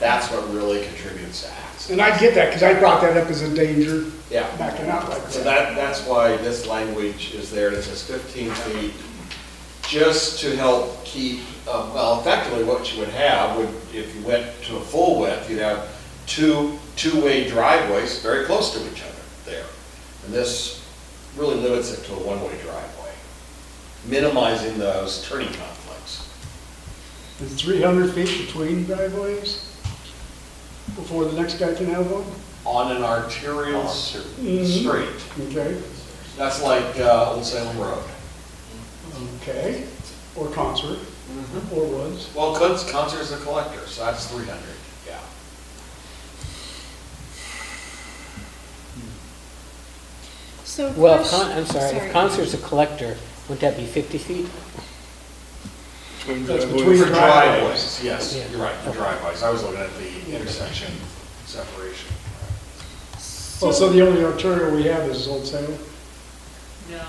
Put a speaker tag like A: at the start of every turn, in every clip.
A: that's what really contributes to accidents.
B: And I get that, because I brought that up as a danger,
A: Yeah,
B: backing out like
A: so
B: that.
A: that, that's why this language is there, it says fifteen feet, just to help keep, uh, well, effectively what you would have, would, if you went to a full width, you'd have two, two-way driveways very close to each other there. And this really limits it to a one-way driveway, minimizing those turning conflicts.
B: Is three hundred feet between driveways before the next guy can have one?
A: on an arterial s-
B: Mhm.
A: street.
B: Okay,
A: That's like uh, Old Salem Road.
B: okay, or concert, or woods.
A: Well, Kunz, Kunzer's a collector, so that's 300, yeah.
C: So.
D: Well, if
C: question-
D: con, I'm sorry, if Concert's a collector, would that be 50 feet?
B: That's
A: For
B: between driveways.
A: driveways, yes,
D: Yeah.
A: you're right, for driveways. I was looking at the intersection separation.
B: Well, Oh, so the only arterial we have is Old Salem.
E: No,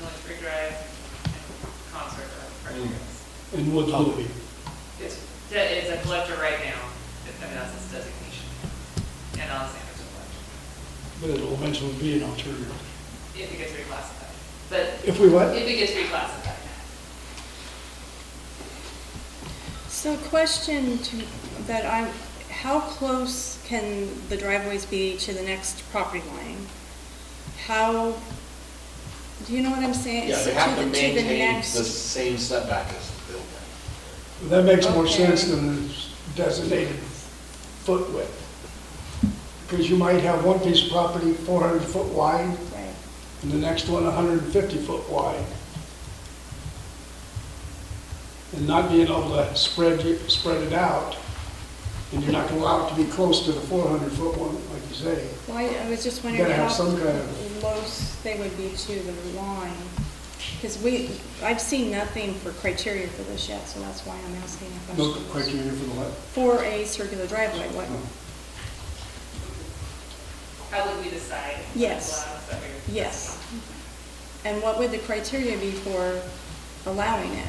E: Military Drive and Concert Drive.
A: Mm.
B: And Woods will be.
E: It's, that is a collector right now, I mean, that's its designation. And Alexander's a collector,
B: But it'll eventually be an arterial.
E: if it gets reclassified. But
B: If we what?
E: if it gets reclassified,
C: So question to, that I'm, how close can the driveways be to the next property line? How, do you know what I'm saying?
A: Yeah, they
C: So
A: have to
C: the- the
A: maintain the
C: next-
A: same setback as the building.
B: That makes more
C: Okay.
B: sense than the designated foot width. Because you might have one piece of property four hundred foot wide,
C: Right.
B: and the next one hundred and fifty foot wide. And not being able to spread, it- spread it out, and you're not gonna allow it to be close to the four hundred foot one, like you say.
C: Well, I I was just
B: You
C: wondering
B: gotta
C: how
B: have some kind of,
C: close they would be to the line. Because we, I've seen nothing for criteria for this yet, so that's why I'm asking a
B: no
C: question.
B: criteria Mm-hmm. for the left.
C: For a circular driveway, what,
B: Oh,
E: how would we decide?
C: Yes.
E: Allow us that we're-
C: Yes. And what would the criteria be for allowing it,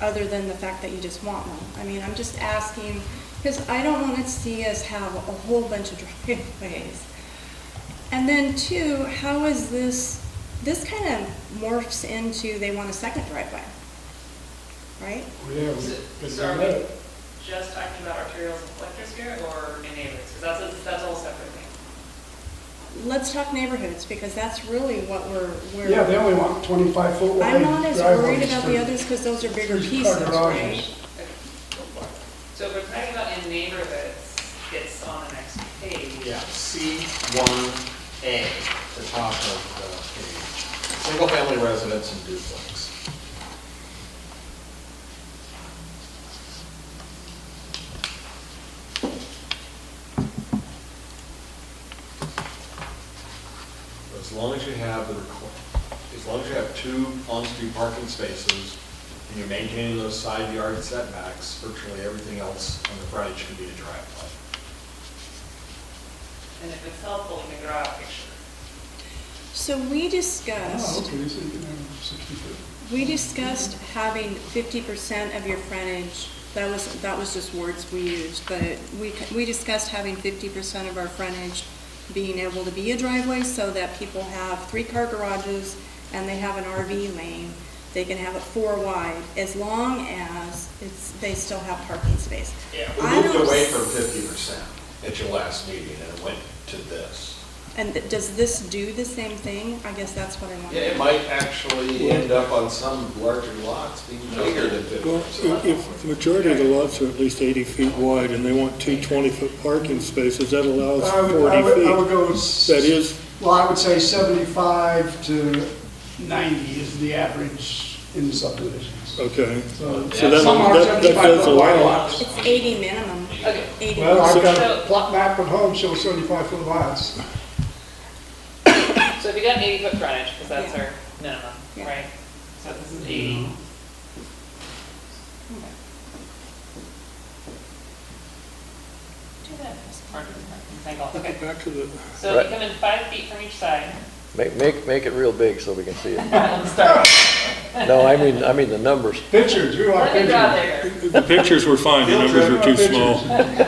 C: other than the fact that you just want one? I mean, I'm just asking, because I don't want to see us have a whole bunch of driveways. And then two, how is this, this kind of morphs into they want a second driveway, right?
B: Yeah, we
E: So-
B: could
E: So are
B: do
E: we
B: that.
E: just talking about arterials and collectors here, or neighbors? Because that's, a- that's a whole separate thing.
C: Let's talk neighborhoods, because that's really what we're, we're.
B: Yeah, they only want twenty-five foot wide.
C: I'm not as worried
B: driveways
C: about
B: for-
C: the others, because those are
B: for
C: bigger
B: car
C: pieces, right?
B: garages.
E: So if we're talking about in neighborhoods, it's on the next page.
A: Yeah, C1A, the top of the page. Single-family residence and duplex. As long as you have the, requ- as long as you have two on-street parking spaces, and you're maintaining those side yard setbacks, virtually everything else on the frontage can be a driveway.
E: And if it's helpful, we can draw a picture.
C: So we
B: Oh,
C: discussed.
B: okay, so you can have sixty foot.
C: We discussed having fifty percent of your frontage, that was, that was just words we used, but we, we discussed having fifty percent of our frontage being able to be a driveway so that people have three-car garages and they have an RV lane, they can have it four wide, as long as it's, they still have parking space.
A: Yeah, we
C: I
A: moved
C: don't
A: away
C: s-
A: from fifty percent at your last meeting and it went to this.
C: And th- does this do the same thing? I guess that's what I want.
A: Yeah, it might actually end up on some larger lots being bigger than fifty
F: Well,
A: percent.
F: if- if the majority of the lots are at least 80 feet wide and they want two 20-foot parking spaces, that allows
B: I would, I would, I would
F: 40 feet.
B: go.
F: That is,
B: Well, I would say seventy-five to ninety is the average in subdivisions.
F: okay.
B: So
F: So that-
B: some are
F: that- that
B: 75
F: does
B: foot wide
F: allow-
B: lots.
C: It's eighty minimum,
E: Okay.
C: eighty.
B: Well, I've
F: So-
B: got a plot map at home shows seventy-five foot lots.
E: So if you got an eighty foot frontage, because that's
C: Yeah.
E: our minimum,
C: Yeah.
E: right? So this is eighty. Do that as part of the rectangle, okay.
F: Back to the,
E: So if you come in five feet from each side,
G: Make, make, make it real big so we can see it.
E: let's start.
G: No, I mean, I mean the numbers.
B: Pictures, you want
E: Let me draw
B: pictures?
E: there.
F: the pictures were fine, the numbers are too small.
B: Pictures.